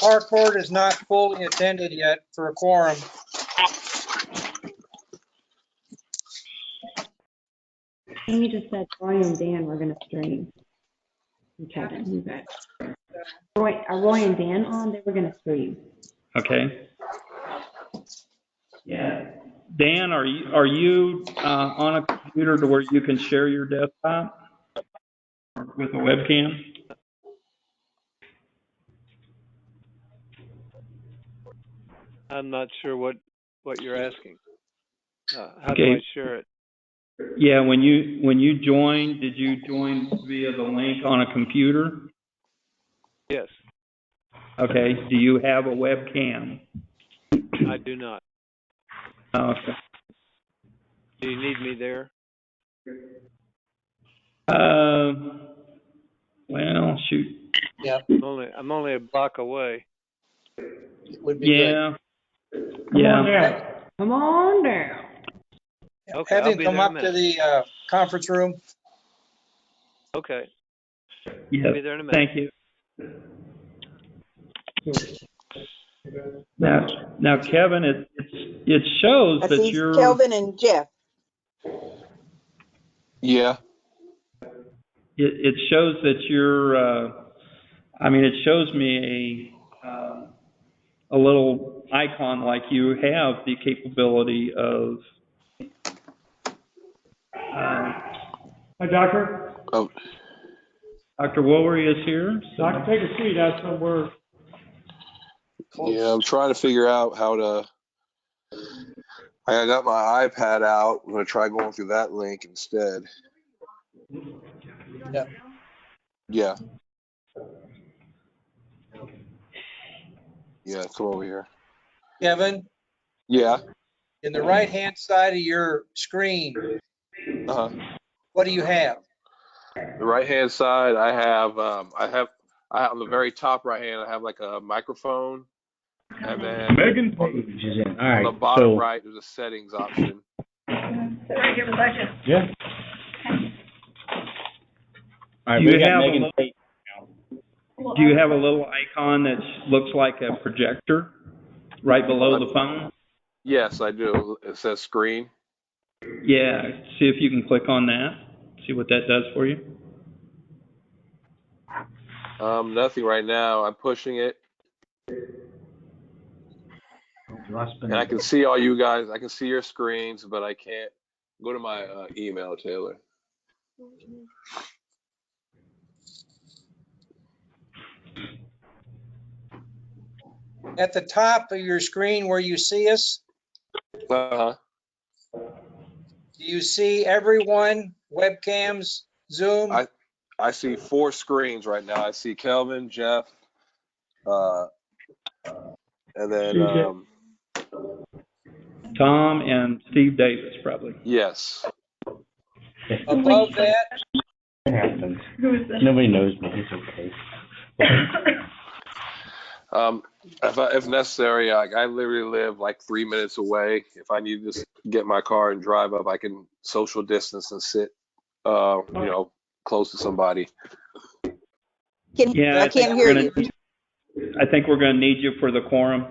Harcourt is not fully attended yet for a quorum. Amy just said Roy and Dan were gonna stream. And Kevin, you bet. Roy, are Roy and Dan on? They were gonna stream. Okay. Yeah. Dan, are you, are you uh, on a computer to where you can share your desktop with a webcam? I'm not sure what, what you're asking. Uh, how do I Okay. share it? Yeah, when you, when you joined, did you join via the link on a computer? Yes, Okay, do you have a webcam? I do not. Okay. Do you need me there? Uh, well, shoot, Yeah, I'm only, I'm only a block away. it would be good. yeah. Yeah, Come on down. Okay, Have I'll him be come there up in a to minute. the uh, conference room. Okay, I'll yeah, be there in a minute. thank you. Now, now Kevin, it, it's- it shows I that see you're. Kelvin and Jeff. Yeah, it, it shows that you're, uh, I mean, it shows me a, um a little icon like you have the capability of, um, Hi, Doctor. oh, Dr. Woolery is here. so- Doctor, take a seat. That's what we're, yeah, I'm trying to figure out how to. I got my iPad out. I'm gonna try going through that link instead. Yep. Yeah. Yeah, come over here. Kevin, Yeah, in the right-hand side of your screen, uh-huh. what do you have? The right-hand side, I have, um, I have, I on the very top right hand, I have like a microphone. And then Megan Page is in. All on right. the bottom so- right, there's a settings option. Yeah. All right, You we got have a Megan little- Page. Do you have a little icon that looks like a projector right below the phone? Yes, I do. It says screen. Yeah, see if you can click on that, see what that does for you. Um, nothing right now. I'm pushing it, and I can see all you guys. I can see your screens, but I can't go to my uh, email, Taylor. At the top of your screen where you see us, Uh-huh. do you see everyone, webcams, Zoom? I- I see four screens right now. I see Kelvin, Jeff, uh, and then CJ. um, Tom and Steve Davis, probably. yes, Above that, It happens. Nobody knows me. It's okay. um, if, I, if necessary, I, I literally live like three minutes away. If I need to just get my car and drive up, I can social distance and sit, uh, you know, close to somebody. Can, Yeah, I think can't we're hear gonna- you. I think we're gonna need you for the quorum.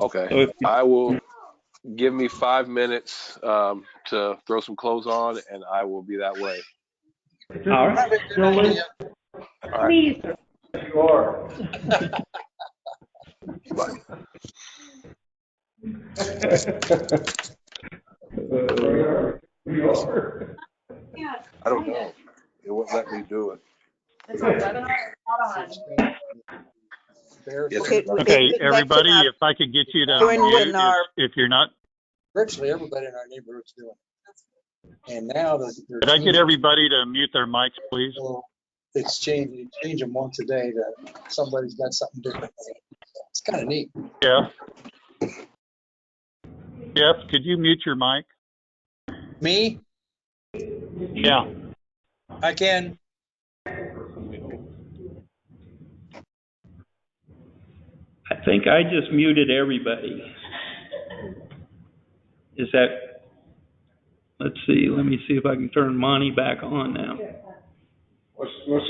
Okay. So if you- I will give me five minutes um, to throw some clothes on, and I will be that way. All right. probably a good idea. Please, I don't know. It won't let me do it. Yes, Okay, sir. okay, Okay, back to everybody, my- if I could get you to Doing unmute, webinar. if, if you're not, Virtually everybody in our neighborhood's doing it. And now that. they're- could I get everybody to mute their mics, please? So It's changed, you change them once a day to somebody's got something different. It's kind of neat. Jeff? Jeff, could you mute your mic? Me, Yeah, I can, I think I just muted everybody. Is that, let's see, let me see if I can turn Monty back on now. let's, let's